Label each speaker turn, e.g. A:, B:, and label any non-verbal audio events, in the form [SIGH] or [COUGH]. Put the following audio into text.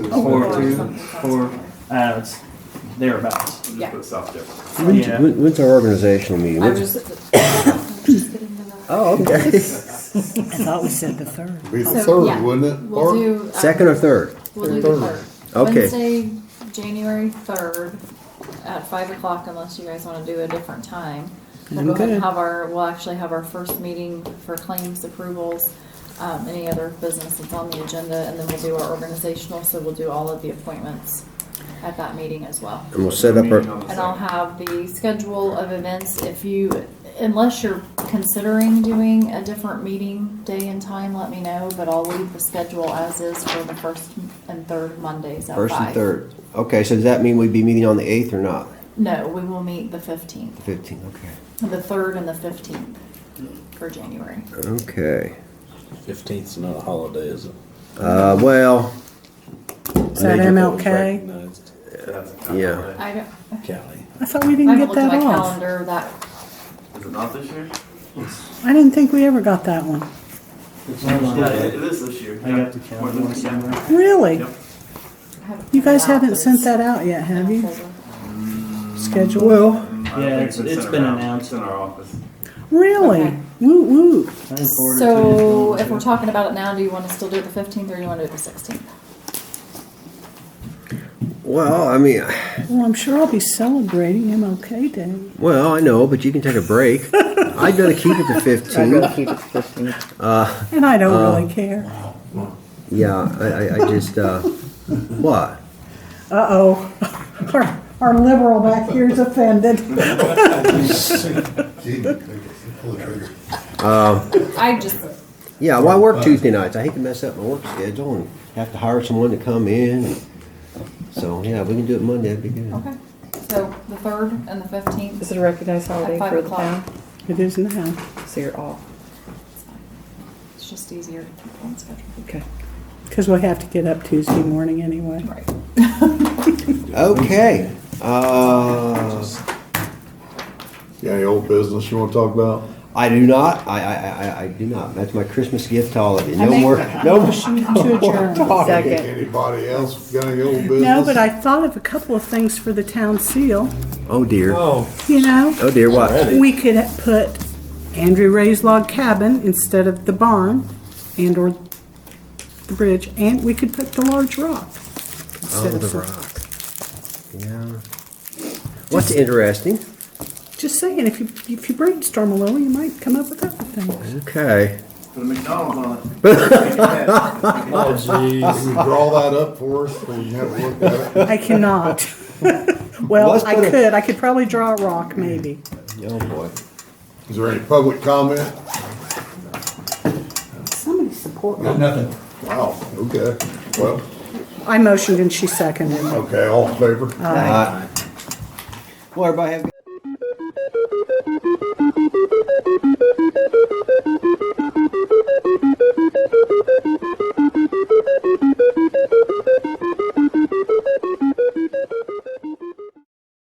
A: Four, two,
B: Oh, something,
A: four, uh, it's thereabouts.
B: Yeah.
C: Put south difference.
D: When's,
A: Yeah.
D: when- when's our organizational meeting?
B: I'm
D: When's-
B: just, [COUGHS] just getting them out.
D: Oh, okay.
E: I thought we said the third.
F: Be the
B: So, yeah,
F: third, wouldn't it?
B: We'll
F: Or-
B: do. um,
D: Second or third?
B: We'll do the
F: Third.
B: third.
D: Okay.
B: Wednesday, January third, at five o'clock, unless you guys wanna do a different time. We'll go ahead and
D: Okay.
B: have our, we'll actually have our first meeting for claims approvals, um, any other business that's on the agenda, and then we'll do our organizational, so we'll do all of the appointments at that meeting as well.
D: And we'll set up
C: Meeting on
D: our,
C: the
B: And I'll
C: second.
B: have the schedule of events if you, unless you're considering doing a different meeting day and time, let me know. But I'll leave the schedule as is for the first and third Mondays at
D: first and
B: five.
D: third. Okay, so does that mean we'd be meeting on the eighth or not?
B: No, we will meet the fifteenth,
D: Fifteenth, okay.
B: the third and the fifteenth for January.
D: Okay.
G: Fifteenth's not a holiday, is it?
D: Uh, well,
E: Is that MLK?
G: Recognized.
C: That's-
D: Yeah.
B: I don't,
G: Cali.
E: I thought we
B: I
E: didn't
B: haven't
E: get
B: looked at
E: that
B: my
E: off.
B: calendar that,
C: Is it not this year?
E: I didn't think we ever got that one.
C: Yeah, it it is this year.
A: I
C: Yeah.
A: got the
C: More
A: calendar
C: than-
A: one somewhere.
E: Really?
C: Yep.
B: I haven't.
E: You guys
B: printed out,
E: haven't
B: but
E: sent
B: it's
E: that out yet,
B: in
E: have you?
B: October.
E: Schedule? Well.
C: Mm, I
A: Yeah,
C: think
A: it's- it's
C: sent
A: been
C: around.
A: announced.
C: It's in our office.
E: Really?
B: Okay.
E: Woo woo.
A: I didn't forward it to you.
B: So if we're talking about it now, do you wanna still do the fifteenth or do you wanna do the sixteenth?
D: well, I mean,
E: Well, I'm sure I'll be celebrating MLK Day.
D: well, I know, but you can take a
H: [LAUGHS]
D: break. I'd rather keep it to
H: I'd
D: fifteen.
H: keep it to 15.
E: And I don't really care.
D: Yeah, I, I, I just, uh, what?
E: Uh-oh. [LAUGHS] Our, our liberal back here is offended.
F: [LAUGHS] Gee, pull the trigger.
B: I just,
D: Yeah, well, I work Tuesday nights. I hate to mess up my work schedule and have to hire someone to come in. So, yeah, we can do it Monday, that'd be good.
B: Okay, so the third and the fifteenth.
H: Is it a recognized holiday
B: At five
H: for the
B: o'clock.
H: town?
E: It is now.
H: So you're off.
B: It's just easier to keep on schedule.
H: Okay.
E: Because we have to get up Tuesday morning anyway.
B: Right. [LAUGHS]
D: Okay, uh,
F: Yeah, any old business you wanna talk about?
D: I do not, I, I, I- I, I do not. That's my Christmas gift holiday.
E: I
D: No
E: make
D: more,
E: a
D: [LAUGHS] no more.
E: motion to
D: [LAUGHS]
E: adjourn.
H: Second.
F: Anybody else got any old business?
E: No, but I thought of a couple of things for the town seal,
D: Oh dear, oh
E: you know?
D: dear, what?
E: We could put Andrew Ray's log cabin instead of the barn and or the bridge, and we could put the large rock. instead
D: Oh,
E: of
D: the rock. Yeah. What's interesting,
E: Just saying, if you, if you brainstorm a little, you might come up with other things.
D: okay.
C: Put a McDonald's on it.
F: Can you draw that up for us, so we can have a look at it?
E: I cannot. [LAUGHS] Well,
D: Let's
E: I
D: put a-
E: could, I could probably draw a rock, maybe.
D: Oh boy.
F: Is there any public comment?
E: Somebody support me.
F: Nothing. Wow, okay, well,
E: I motioned and she seconded.
F: okay, all in favor?
D: Uh, Well, everybody have a good